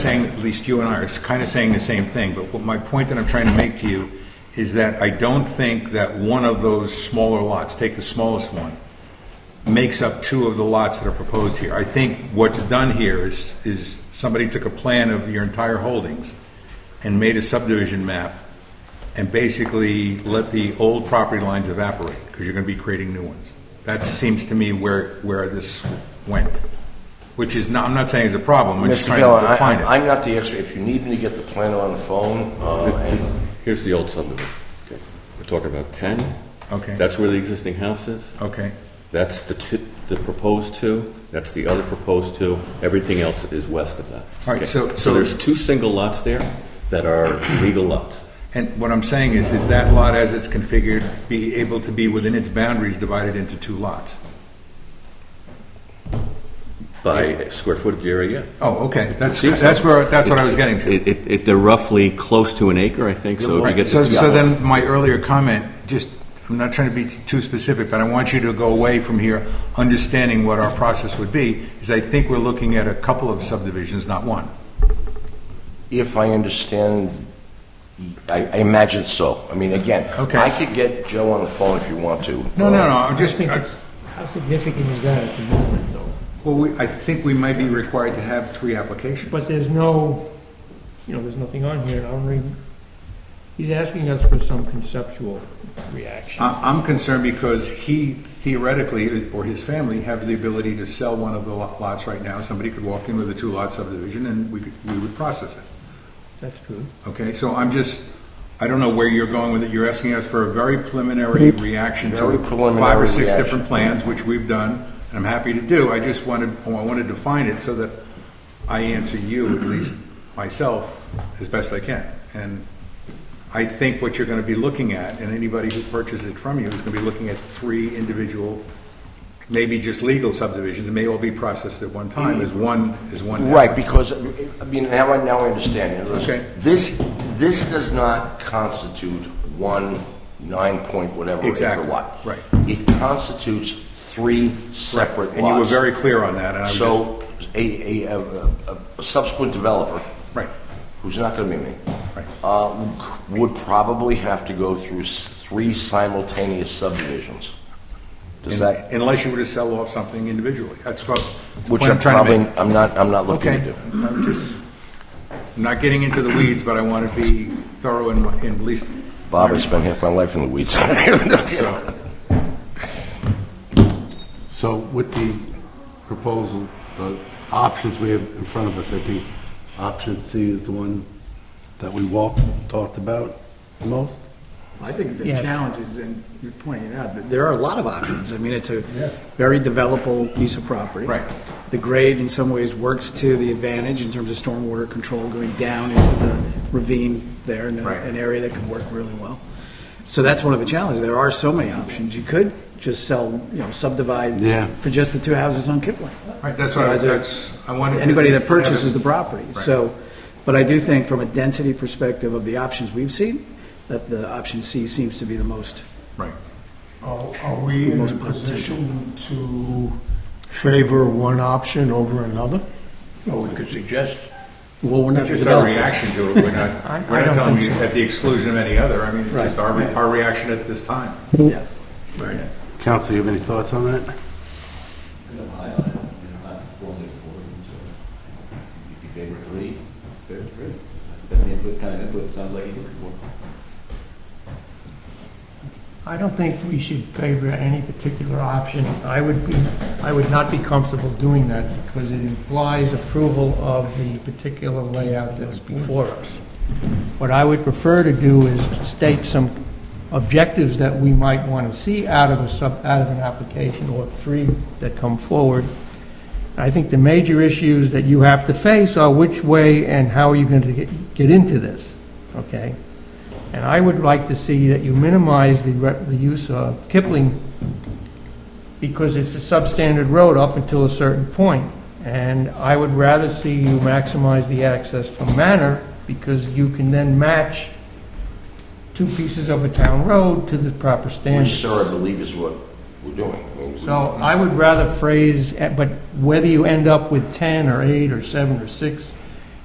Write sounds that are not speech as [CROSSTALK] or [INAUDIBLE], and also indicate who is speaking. Speaker 1: least you and I are kind of saying the same thing, but what my point that I'm trying to make to you is that I don't think that one of those smaller lots, take the smallest one, makes up two of the lots that are proposed here. I think what's done here is, is somebody took a plan of your entire holdings and made a subdivision map and basically let the old property lines evaporate, because you're going to be creating new ones. That seems to me where, where this went, which is not, I'm not saying it's a problem, I'm just
Speaker 2: Mr.
Speaker 1: trying
Speaker 2: Dillon,
Speaker 1: to
Speaker 2: I-
Speaker 1: define it.
Speaker 2: I- I'm not the expert, if you need me to get the planner on the phone, uh, and
Speaker 3: Here's the old subdivision. We're talking about 10.
Speaker 1: Okay.
Speaker 3: That's where the existing house is.
Speaker 1: Okay,
Speaker 3: That's the two, the proposed two. That's the other proposed two. Everything else is west of that.
Speaker 1: All right,
Speaker 3: Okay.
Speaker 1: so- so-
Speaker 3: So there's two single lots there that are legal lots.
Speaker 1: and what I'm saying is, is that lot as it's configured be able to be within its boundaries divided into two lots?
Speaker 3: By square footage area, yeah.
Speaker 1: Oh, okay, that's,
Speaker 3: Seems so.
Speaker 1: that's where, that's what I was getting to.
Speaker 3: It, it, it- they're roughly close to an acre, I think, so if you
Speaker 1: Right,
Speaker 3: get
Speaker 1: so,
Speaker 3: the
Speaker 1: so then my earlier comment, just, I'm not trying to be too specific, but I want you to go away from here understanding what our process would be, is I think we're looking at a couple of subdivisions, not one.
Speaker 2: if I understand, I I imagine so. I mean, again,
Speaker 1: Okay.
Speaker 2: I could get Joe on the phone if you want to. Uh,
Speaker 1: No, no, no, I'm just, I-
Speaker 4: How significant is that at the moment, though?
Speaker 1: well, we, I think we might be required to have three applications.
Speaker 4: But there's no, you know, there's nothing on here, and I don't really, he's asking us for some conceptual reaction.
Speaker 1: I- I'm concerned because he theoretically, or his family, have the ability to sell one of the lo- lots right now. Somebody could walk in with a two-lot subdivision and we could, we would process it.
Speaker 4: That's true.
Speaker 1: Okay, so I'm just, I don't know where you're going with it. You're asking us for a very preliminary reaction
Speaker 2: Very
Speaker 1: to five or
Speaker 2: preliminary
Speaker 1: six
Speaker 2: reaction.
Speaker 1: different plans, which we've done, and I'm happy to do. I just wanted, I wanted to find it so that I answer you, at least myself, as best I can. And I think what you're going to be looking at, and anybody who purchases it from you is going to be looking at three individual, maybe just legal subdivisions, it may all be processed at one time, as one, as one.
Speaker 2: Mm-hmm. Right, because, I mean, now I, now I understand. In other words,
Speaker 1: Okay.
Speaker 2: This, this does not constitute one nine point whatever acre
Speaker 1: Exactly,
Speaker 2: lot.
Speaker 1: right.
Speaker 2: It constitutes three separate lots.
Speaker 1: And you were very clear on that, and I was just.
Speaker 2: So, a, a, a- a- a subsequent developer.
Speaker 1: Right.
Speaker 2: Who's not gonna be me.
Speaker 1: Right.
Speaker 2: Uh, would probably have to go through s- three simultaneous subdivisions. Does that,
Speaker 1: Unless you were to sell off something individually. That's what, that's the
Speaker 2: which
Speaker 1: point
Speaker 2: I'm
Speaker 1: I'm trying to
Speaker 2: probably,
Speaker 1: make.
Speaker 2: I'm not, I'm not looking to
Speaker 1: Okay,
Speaker 2: do.
Speaker 1: I'm just, I'm not getting into the weeds, but I want to be thorough in, my- in at least.
Speaker 2: Bob, I spent half my life in the weeds. [LAUGHS]
Speaker 5: So with the proposal, the options we have in front of us, I think option C is the one that we walked, talked about the most.
Speaker 6: I think the
Speaker 4: Yes.
Speaker 6: challenge is, and you're pointing it out, that there are a lot of options. I mean, it's a very developable piece of property.
Speaker 1: Right.
Speaker 6: The grade in some ways works to the advantage in terms of stormwater control going down into the ravine there in a-
Speaker 1: Right.
Speaker 6: an area that could work really well. So that's one of the challenges. There are so many options. You could just sell, you know, subdivide
Speaker 5: Yeah.
Speaker 6: for just the two houses on Kipling.
Speaker 1: Right, that's what I-
Speaker 6: As a-
Speaker 1: that's- I wanted to
Speaker 6: Anybody
Speaker 1: at
Speaker 6: that
Speaker 1: least have it-
Speaker 6: purchases the property.
Speaker 1: Right.
Speaker 6: So, but I do think from a density perspective of the options we've seen, that the option C seems to be the most
Speaker 1: Right.
Speaker 7: Are are we in a
Speaker 6: Most potential.
Speaker 7: position to favor one option over another?
Speaker 4: Well, we could suggest.
Speaker 6: Well, we're not the
Speaker 1: Just our
Speaker 6: developers.
Speaker 1: reaction to it, we're
Speaker 4: I-
Speaker 1: not,
Speaker 4: I
Speaker 1: we're not
Speaker 4: don't
Speaker 1: telling you
Speaker 4: think so.
Speaker 1: at the exclusion of any other. I mean, it's
Speaker 6: Right.
Speaker 1: just our, re- our reaction at this time.
Speaker 6: Yeah.
Speaker 5: Council, you have any thoughts on that?
Speaker 8: If you favor three, favor three. That's the input, kind of input, it sounds like he's looking for.
Speaker 4: I don't think we should favor any particular option. I would be, I would not be comfortable doing that because it implies approval of the particular layout that's before us. What I would prefer to do is state some objectives that we might want to see out of a sub, out of an application or three that come forward. I think the major issues that you have to face are which way and how are you going to get, get into this, okay? And I would like to see that you minimize the, re- the use of Kipling because it's a substandard road up until a certain point. And I would rather see you maximize the access from Manor because you can then match two pieces of a town road to the proper standard.
Speaker 2: Which, sir, I believe is what we're doing. I mean, we-
Speaker 4: So I would rather phrase, but whether you end up with 10 or 8 or 7 or 6,